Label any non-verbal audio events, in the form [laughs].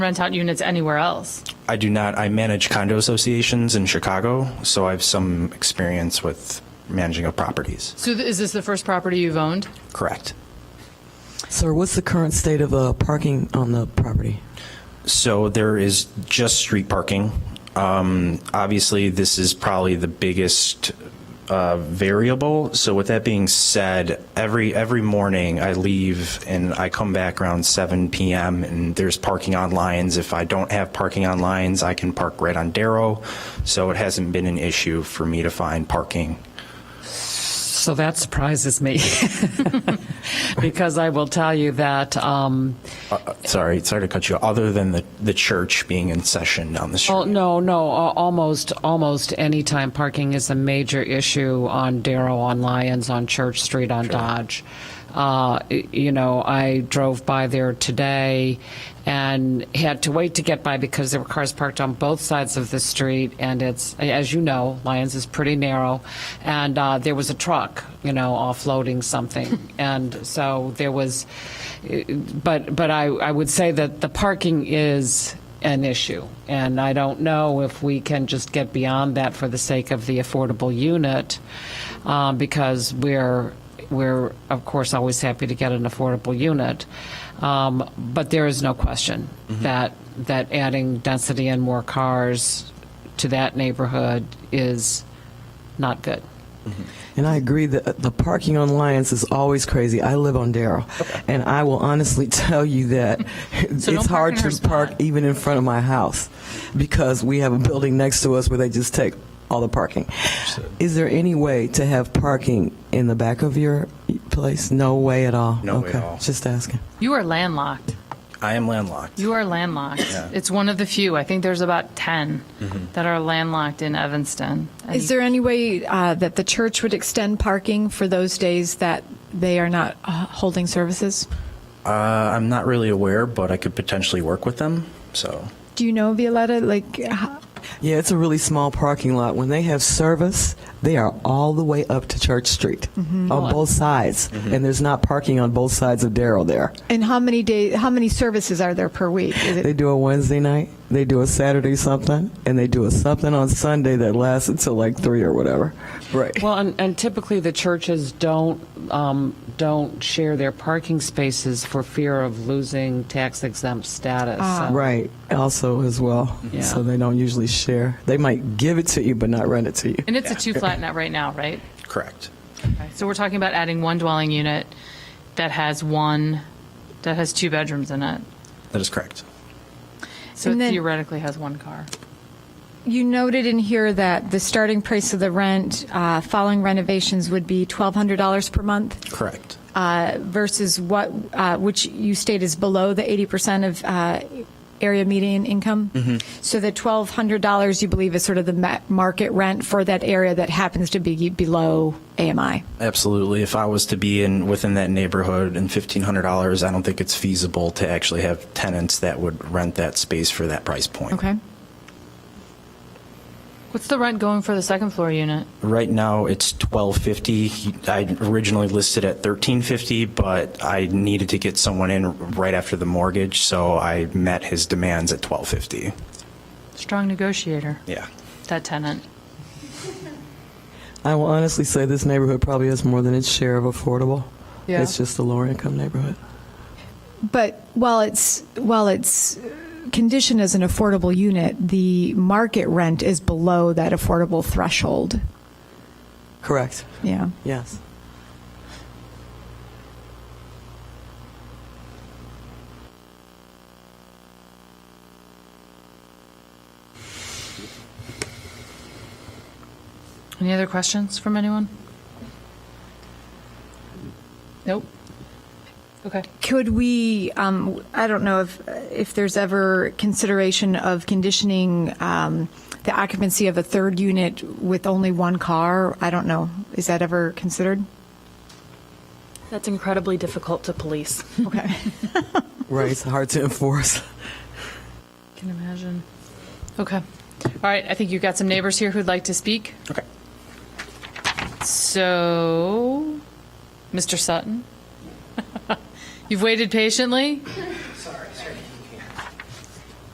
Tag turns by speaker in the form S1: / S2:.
S1: rent out units anywhere else?
S2: I do not, I manage condo associations in Chicago, so I have some experience with managing of properties.
S1: So th- is this the first property you've owned?
S2: Correct.
S3: Sir, what's the current state of uh, parking on the property?
S2: So there is just street parking. Um, Obviously, this is probably the biggest uh, variable. So with that being said, every, every morning I leave and I come back around 7 PM and there's parking on lines. If I don't have parking on lines, I can park right on Darrow. So it hasn't been an issue for me to find parking.
S4: So that surprises me, [laughs] because I will tell you that, um,
S2: Sorry, sorry to cut you. off. Other than the, the church being in session down the street.
S4: oh, no, no, al- almost, almost any time parking is a major issue on Darrow, on Lyons, on Church Street, on Dodge. Uh, y- You know, I drove by there today and had to wait to get by because there were cars parked on both sides of the street, and it's, as you know, Lyons is pretty narrow, and uh, there was a truck, you know, offloading something, and so there was, but, but I, I would say that the parking is an issue, and I don't know if we can just get beyond that for the sake of the affordable unit, um, because we're, we're, of course, always happy to get an affordable unit. Um, But there is no question that, that adding density and more cars to that neighborhood is not good.
S3: And I agree that uh, the parking on Lyons is always crazy. I live on Darrow, and I will honestly [laughs] tell
S1: [laughs]
S3: you that
S1: don't
S3: it's
S1: park
S3: hard
S1: in her
S3: to park
S1: spot.
S3: even in front of my house because we have a building next to us where they just take all the parking. Is there any way to have parking in the back of your place? No way at all.
S2: No way at
S3: Okay,
S2: all.
S3: Just asking.
S1: You are landlocked.
S2: I am landlocked.
S1: You are landlocked. It's one of the few. I think there's about 10 that are landlocked in Evanston. And
S5: Is there any way uh, that the church would extend parking for those days that they are not uh, holding services?
S2: Uh, I'm not really aware, but I could potentially work with them. So
S5: Do you know, Violetta? Like, h-
S3: Yeah, it's a really small parking lot. When they have service, they are all the way up to Church Street on both sides, and there's not parking on both sides of Darrow there.
S5: and how many days? How many services are there per week? Is it,
S3: They do a Wednesday night, they do a Saturday something, and they do a something on Sunday that lasts until like three or whatever. Right.
S4: Well, and, and typically the churches don't, um, don't share their parking spaces for fear of losing tax exempt status. So-
S3: Right. Also, as well.
S4: Yeah.
S3: So they don't usually share. They might give it to you, but not rent it to you.
S1: and it's a two flat net right now, right?
S2: correct.
S1: So we're talking about adding one dwelling unit that has one, that has two bedrooms in it.
S2: That is correct.
S1: So
S5: And
S1: it
S5: then-
S1: theoretically has one car.
S5: you noted in here that the starting price of the rent uh, following renovations would be twelve hundred dollars per month
S2: Correct.
S5: uh, versus what, uh, which you state is below the eighty percent of. Uh, Area median income. So the twelve hundred dollars you believe is sort of the ma- market rent for that area that happens to be below AMI.
S2: Absolutely. If I was to be in within that neighborhood and fifteen hundred dollars, I don't think it's feasible to actually have tenants that would rent that space for that price point.
S5: Okay.
S1: What's the rent going for the second floor unit?
S2: Right now it's twelve fifty. I originally listed at thirteen fifty, but I needed to get someone in right after the mortgage, so I met his demands at twelve fifty.
S1: Strong negotiator,
S2: Yeah.
S1: that tenant.
S3: I will honestly say this neighborhood probably has more than its share of affordable.
S1: Yeah.
S3: It's just a lower income neighborhood.
S5: But while it's while it's conditioned as an affordable unit, the market rent is below that affordable threshold.
S3: Correct.
S5: Yeah.
S3: Yes.
S1: Any other questions from anyone? Nope. Okay.
S5: Could we? Um, I don't know if if there's ever consideration of conditioning um, the occupancy of a third unit with only one car. I don't know. Is that ever considered?
S6: That's incredibly difficult to police.
S5: Okay.
S3: Right. It's hard to enforce.
S1: Can imagine. Okay. All right. I think you've got some neighbors here who'd like to speak.
S2: Okay.
S1: [laughs] So, Mr. Sutton, you've waited patiently.